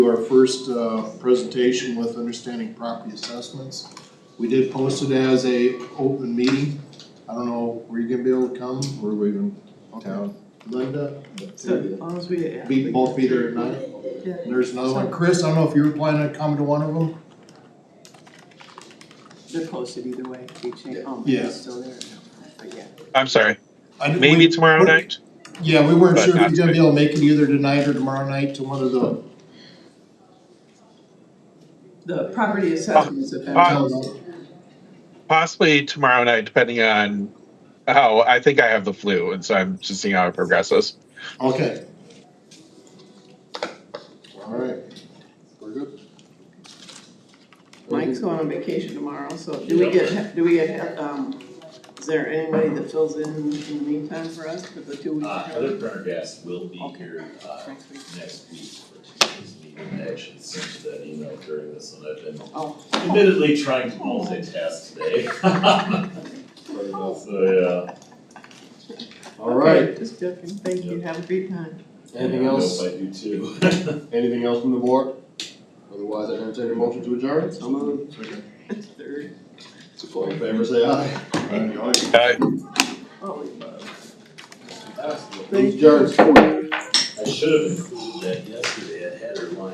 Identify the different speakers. Speaker 1: to our first uh, presentation with understanding property assessments. We did post it as a open meeting. I don't know, were you gonna be able to come or were you in town? Linda,
Speaker 2: So as long as we. yeah,
Speaker 1: be,
Speaker 2: we-
Speaker 1: both be there at nine.
Speaker 2: Yeah.
Speaker 1: And There's another one. Chris, I don't know if you were planning on coming to one of them?
Speaker 2: They're posted either way, we change, oh,
Speaker 1: Yeah.
Speaker 2: it's still there, but yeah.
Speaker 3: I'm sorry,
Speaker 1: I didn't- we-
Speaker 3: maybe tomorrow
Speaker 1: we-
Speaker 3: night?
Speaker 1: Yeah, we weren't
Speaker 3: But
Speaker 1: sure if
Speaker 3: not
Speaker 1: you're gonna be
Speaker 3: today.
Speaker 1: able to make it either tonight or tomorrow night to one of the.
Speaker 2: The property assessments have been.
Speaker 3: Uh, Possibly tomorrow night, depending on how, I think I have the flu, and so I'm just seeing how it progresses.
Speaker 1: Okay. Alright, we're good.
Speaker 2: Mike's going on vacation tomorrow, so do we get, do we get, um, is there anybody that fills in in the meantime for us for the two
Speaker 4: Uh,
Speaker 2: weeks?
Speaker 4: Heather Turner Guest will be
Speaker 2: Okay.
Speaker 4: here, uh,
Speaker 2: Next week?
Speaker 4: next week for Tuesday's meeting, I actually sent you that email during this one, I've been
Speaker 2: Oh,
Speaker 4: admittedly trying to multitask today. So, yeah.
Speaker 1: Alright,
Speaker 2: okay, Just joking, thank you, have a great time.
Speaker 5: Anything
Speaker 4: Yeah, I
Speaker 5: else,
Speaker 4: hope I do too.
Speaker 5: anything else from the board? Otherwise, I entertain a motion to adjourn. So moved.
Speaker 2: It's third,
Speaker 5: All in favor, say aye.
Speaker 3: Uh,
Speaker 2: oh, wait.
Speaker 5: Meeting adjourned.
Speaker 4: I should have included that yesterday.